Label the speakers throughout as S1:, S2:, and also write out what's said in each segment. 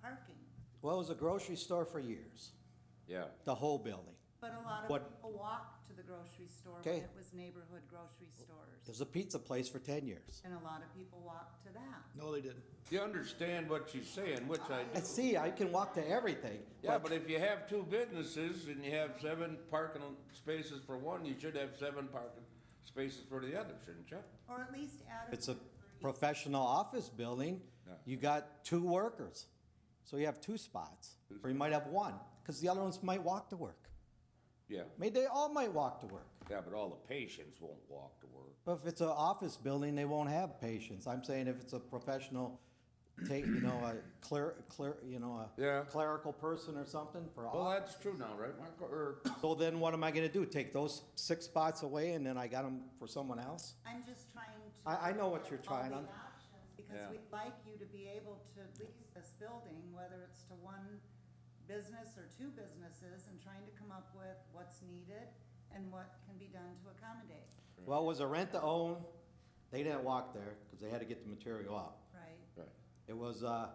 S1: parking,
S2: Well, it was a grocery store for years,
S3: Yeah,
S2: the whole building.
S1: but a lot of
S2: What-
S1: people walked to the grocery store when
S2: Okay.
S1: it was neighborhood grocery
S2: It
S1: stores.
S2: was a pizza place for ten years.
S1: And a lot of people walked to that.
S4: No, they didn't.
S3: you understand what she's saying, which I
S2: I
S3: do.
S2: see, I can walk to everything.
S3: Yeah, but if you have two businesses and you have seven parking spaces for one, you should have seven parking spaces for the other, shouldn't you?
S1: Or at least add.
S2: It's a
S1: one for each.
S2: professional office building,
S3: No.
S2: you got two workers. So you have two spots, or you might have one, because the other ones might walk to work.
S3: Yeah,
S2: Maybe they all might walk to work.
S3: yeah, but all the patients won't walk to work.
S2: But if it's an office building, they won't have patients. I'm saying if it's a professional, take, you know, a cler, cler, you know,
S3: Yeah.
S2: a clerical person or something for
S3: Well,
S2: office.
S3: that's true now, right, Marco, or,
S2: So then what am I gonna do? Take those six spots away and then I got them for someone else?
S1: I'm just trying to.
S2: I- I know what you're trying
S1: all
S2: on.
S1: the options, Because
S3: Yeah.
S1: we'd like you to be able to lease this building, whether it's to one business or two businesses, and trying to come up with what's needed and what can be done to accommodate,
S2: Well, it was a rent to own. They didn't walk there because they had to get the material out.
S1: right?
S3: right,
S2: It was, uh,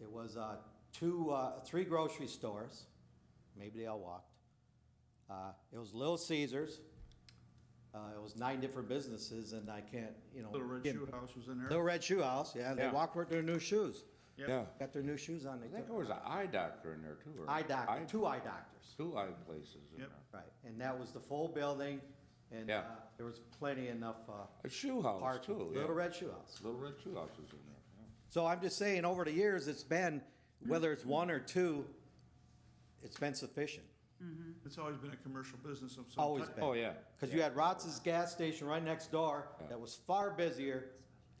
S2: it was, uh, two, uh, three grocery stores. Maybe they all walked. Uh, it was Little Caesar's. Uh, it was nine different businesses and I can't, you know.
S4: Little Red
S2: get-
S4: Shoe House was in there.
S2: Little Red Shoe House, yeah. They
S3: Yeah.
S2: walked with their new shoes.
S4: Yep.
S3: yeah.
S2: Got their new shoes on.
S3: I think there was an eye doctor in there too, or.
S2: Eye doctor,
S3: eye-
S2: two eye doctors.
S3: Two eye places in there.
S4: Yep.
S2: Right, and that was the full building and,
S3: Yeah.
S2: uh, there was plenty enough, uh,
S3: A shoe house
S2: parking.
S3: too, yeah.
S2: Little Red Shoe House.
S3: Little Red Shoe House is in there,
S2: So I'm just saying, over the years, it's been, whether it's one or two, it's been sufficient.
S4: It's always been a commercial business of some type.
S2: Always
S3: yeah.
S2: been.
S3: Oh, yeah.
S2: Because you had Rotz's gas station right next door that was far busier,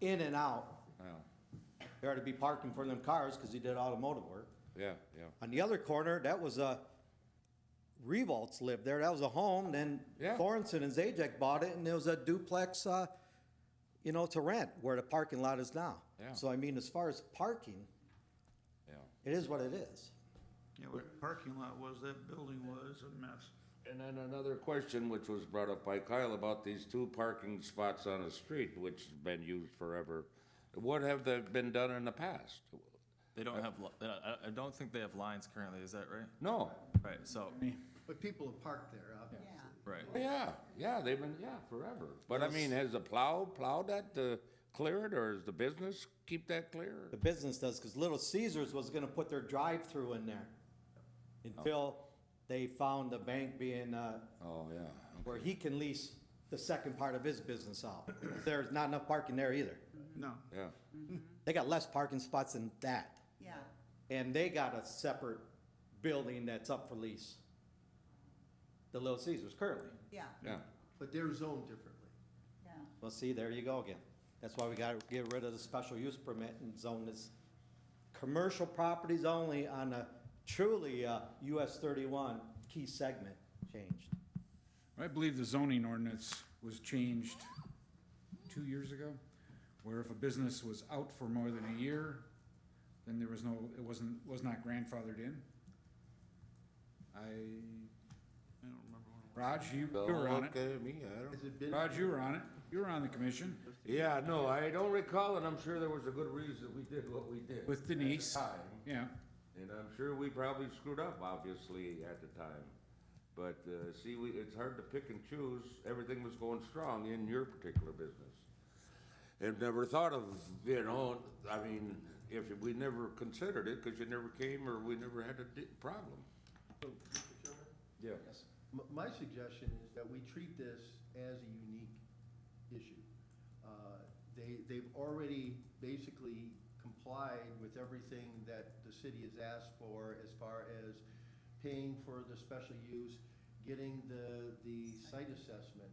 S2: in and out.
S3: Yeah.
S2: There had to be parking for them cars because he did automotive work.
S3: Yeah, yeah.
S2: On the other corner, that was a, Revolts lived there. That was a home. Then
S3: Yeah.
S2: Thornton and Zajac bought it and it was a duplex, uh, you know, to rent where the parking lot is now.
S3: Yeah.
S2: So I mean, as far as parking,
S3: Yeah.
S2: it is what it is.
S4: Yeah, where the parking lot was, that building was a mess.
S3: And then another question which was brought up by Kyle about these two parking spots on a street which has been used forever. What have they been done in the past?
S5: They don't have, li- they don't- I I don't think they have lines currently, is that right?
S3: No.
S5: Right, so,
S6: But people have parked there, uh, obviously.
S1: Yeah.
S5: right.
S3: Oh, Yeah, yeah, they've been, yeah, forever. But I mean, has the plow plowed that to clear it or is the business keep that clear?
S2: The business does, because Little Caesar's was gonna put their drive-through in there until they found the bank being, uh,
S3: Oh, yeah.
S2: where he can lease the second part of his business out. There's not enough parking there either.
S4: No,
S3: Yeah,
S2: They got less parking spots than that.
S1: Yeah,
S2: And they got a separate building that's up for lease. The Little Caesar's currently.
S1: yeah,
S3: yeah.
S6: But they're zoned differently.
S1: yeah.
S2: Well, see, there you go again. That's why we gotta get rid of the special use permit and zone this commercial properties only on a truly, uh, US thirty-one key segment changed.
S7: I believe the zoning ordinance was changed two years ago, where if a business was out for more than a year, then there was no, it wasn't, was not grandfathered in. I,
S4: I don't remember when it
S7: Raj, you, you
S3: Don't
S7: were on
S3: look
S7: it.
S3: at me, I don't.
S6: Has it been,
S7: Raj, you were on it. You were on the commission
S3: Yeah, no, I don't recall and I'm sure there was a good reason we did what we did.
S7: with Denise.
S3: Time.
S7: Yeah,
S3: And I'm sure we probably screwed up, obviously, at the time. But, uh, see, we, it's hard to pick and choose. Everything was going strong in your particular business. And never thought of, you know, I mean, if we never considered it, cause you never came or we never had a di- problem. Yeah.
S6: m- my suggestion is that we treat this as a unique issue. Uh, They, they've already basically complied with everything that the city has asked for as far as paying for the special use, getting the, the site assessment.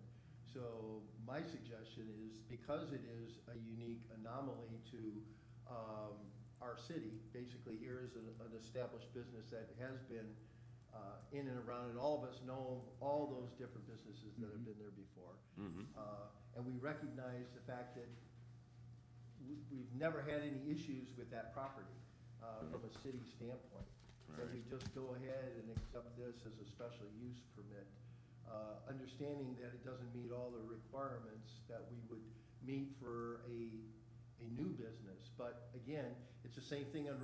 S6: So my suggestion is, because it is a unique anomaly to um, our city, basically here is an an established business that has been uh, in and around, and all of us know all those different businesses that have been there before.
S3: Mm-hmm.
S6: Uh, And we recognize the fact that we- we've never had any issues with that property uh, from a city standpoint. That we just go ahead and accept this as a special use permit, uh, understanding that it doesn't meet all the requirements that we would meet for a, a new business. But again, it's the same thing on